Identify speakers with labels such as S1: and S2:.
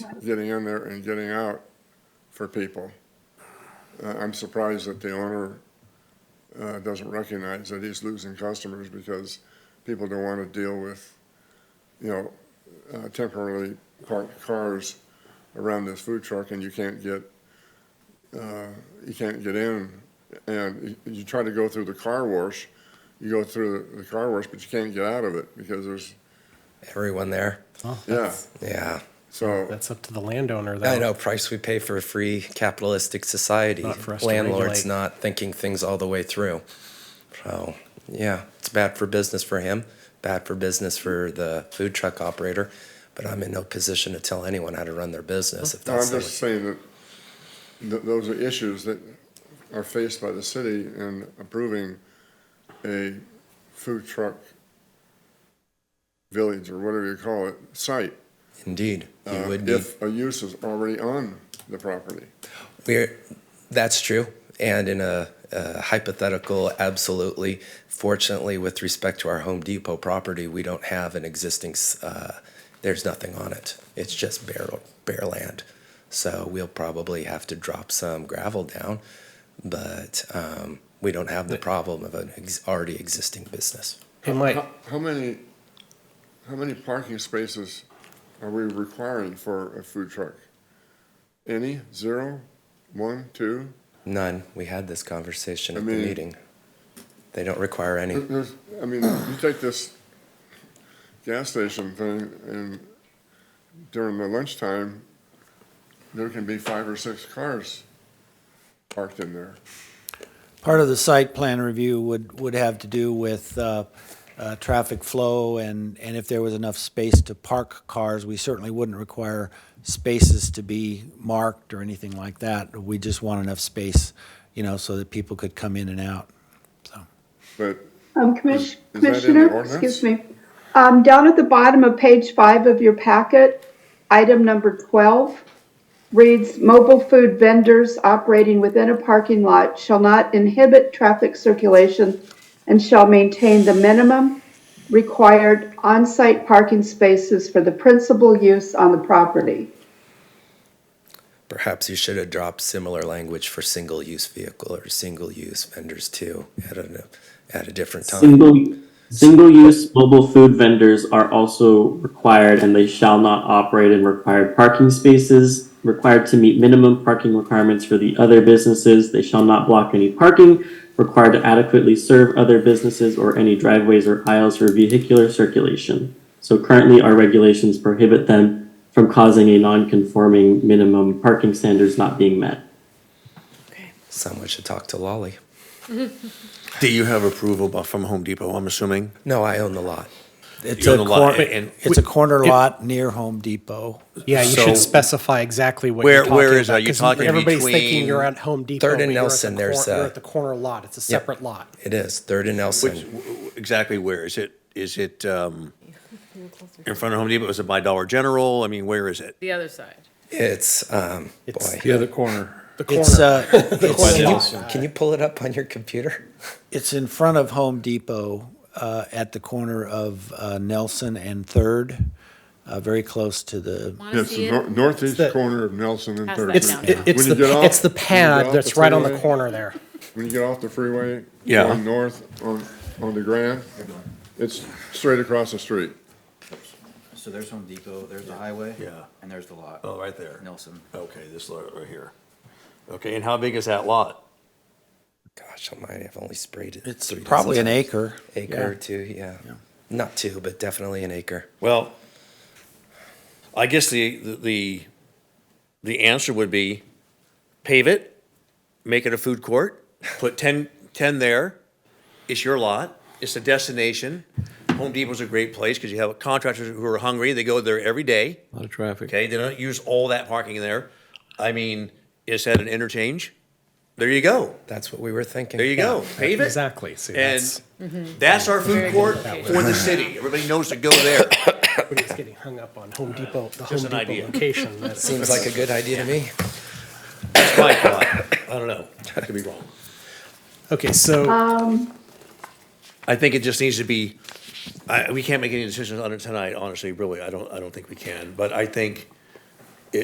S1: getting in there and getting out for people. Uh, I'm surprised that the owner uh, doesn't recognize that he's losing customers because people don't want to deal with, you know, uh, temporarily parked cars around this food truck and you can't get, uh, you can't get in. And you- you try to go through the car wash, you go through the- the car wash, but you can't get out of it because there's,
S2: everyone there.
S1: yeah,
S2: Yeah.
S1: so,
S3: That's up to the landowner, though.
S2: I know price we pay for a free capitalistic society.
S3: Not for us to
S2: Landlord's
S3: regulate.
S2: not thinking things all the way through. So, yeah, it's bad for business for him, bad for business for the food truck operator. But I'm in no position to tell anyone how to run their business if
S1: no, I'm
S2: that's the
S1: just saying that th- those are issues that are faced by the city in approving a food truck village or whatever you call it, site.
S2: Indeed, you
S1: uh,
S2: would be.
S1: If a use is already on the property.
S2: We're, that's true. And in a, a hypothetical, absolutely. Fortunately, with respect to our Home Depot property, we don't have an existing, s- uh, there's nothing on it. It's just bare, bare land. So we'll probably have to drop some gravel down, but um, we don't have the problem of an ex- already existing business.
S3: Hey, Mike,
S1: How- How many, how many parking spaces are we requiring for a food truck? Any? Zero? One? Two?
S2: None. We had this conversation
S1: I
S2: at
S1: mean-
S2: the meeting. They don't require any.
S1: There- There's, I mean, you take this gas station thing and during the lunchtime, there can be five or six cars parked in there.
S4: Part of the site plan review would, would have to do with uh, uh, traffic flow and, and if there was enough space to park cars, we certainly wouldn't require spaces to be marked or anything like that. We just want enough space, you know, so that people could come in and out.
S1: But
S5: Um, commis-
S1: Is- is that in the
S5: Commissioner,
S1: ordinance?
S5: excuse me. Um, down at the bottom of page five of your packet, item number twelve reads, mobile food vendors operating within a parking lot shall not inhibit traffic circulation and shall maintain the minimum required on-site parking spaces for the principal use on the property.
S2: Perhaps you should have dropped similar language for single-use vehicle or single-use vendors too at a, at a different time.
S6: Single, single-use mobile food vendors are also required, and they shall not operate in required parking spaces. Required to meet minimum parking requirements for the other businesses. They shall not block any parking. Required to adequately serve other businesses or any driveways or aisles for vehicular circulation. So currently, our regulations prohibit them from causing a non-conforming minimum parking standards not being met.
S2: Someone should talk to Lolly.
S7: Do you have approval bu- from Home Depot, I'm assuming?
S2: No, I own the lot.
S4: It's
S7: You're
S4: a
S7: on the lot,
S4: cor-
S7: and-
S4: It's a corner lot near Home Depot.
S3: yeah, you
S7: So-
S3: should specify exactly what
S7: Where-
S3: you're talking
S7: where is
S3: about,
S7: that? You're
S3: 'cause
S7: talking
S3: Everybody's
S7: between
S3: thinking you're at Home Depot.
S2: Third and
S3: but you're at the
S2: Nelson, there's
S3: cor-
S2: a-
S3: You're at the corner lot. It's a
S2: Yep.
S3: separate lot.
S2: It is, Third and
S7: Which,
S2: Nelson.
S7: w- w- exactly where? Is it, is it um, in front of Home Depot? Is it by Dollar General? I mean, where is it?
S8: The other side.
S2: It's, um, boy.
S9: The other corner.
S3: The corner.
S4: It's, uh,
S2: Can
S4: it's,
S2: you- Can you pull it up on your computer?
S4: it's in front of Home Depot uh, at the corner of uh, Nelson and Third, uh, very close to the
S8: Want to
S1: it's the
S8: see it?
S1: nor- northeast
S3: the-
S1: corner of Nelson and
S8: Pass
S1: Third.
S8: that
S3: It's,
S8: down.
S3: it- it's
S1: When you get
S3: the,
S1: off-
S3: it's the
S1: when you get
S3: pad
S1: off
S3: that's
S1: the
S3: right on the
S1: freeway-
S3: corner there.
S1: When you get off the freeway,
S7: Yeah.
S1: going north on, on the Grand, it's straight across the street.
S10: So there's Home Depot, there's the highway.
S7: Yeah.
S10: And there's the lot.
S7: Oh, right there.
S10: Nelson.
S7: Okay, this lot right here. Okay, and how big is that lot?
S2: Gosh almighty, I've only sprayed it.
S4: It's
S2: three dozen
S4: probably an
S2: times.
S4: acre.
S2: Acre or two, yeah. Not two, but definitely an acre.
S7: Well, I guess the, the, the answer would be pave it, make it a food court, put 10, 10 there. It's your lot. It's a destination. Home Depot's a great place because you have contractors who are hungry. They go there every day.
S9: A lot of traffic.
S7: Okay, they don't use all that parking there. I mean, is that an interchange? There you go.
S2: That's what we were thinking.
S7: There you go. Pave it.
S3: Exactly. See,
S7: And
S3: that's
S7: that's our food court for the city. Everybody knows to go there.
S3: everybody's getting hung up on Home Depot, the Home
S7: Just an
S3: Depot
S7: idea.
S3: location. That
S2: Seems like a good idea to me.
S7: That's my thought. I don't know. I could be wrong.
S3: okay, so
S7: I think it just needs to be, I, we can't make any decisions on it tonight, honestly, really. I don't, I don't think we can. But I think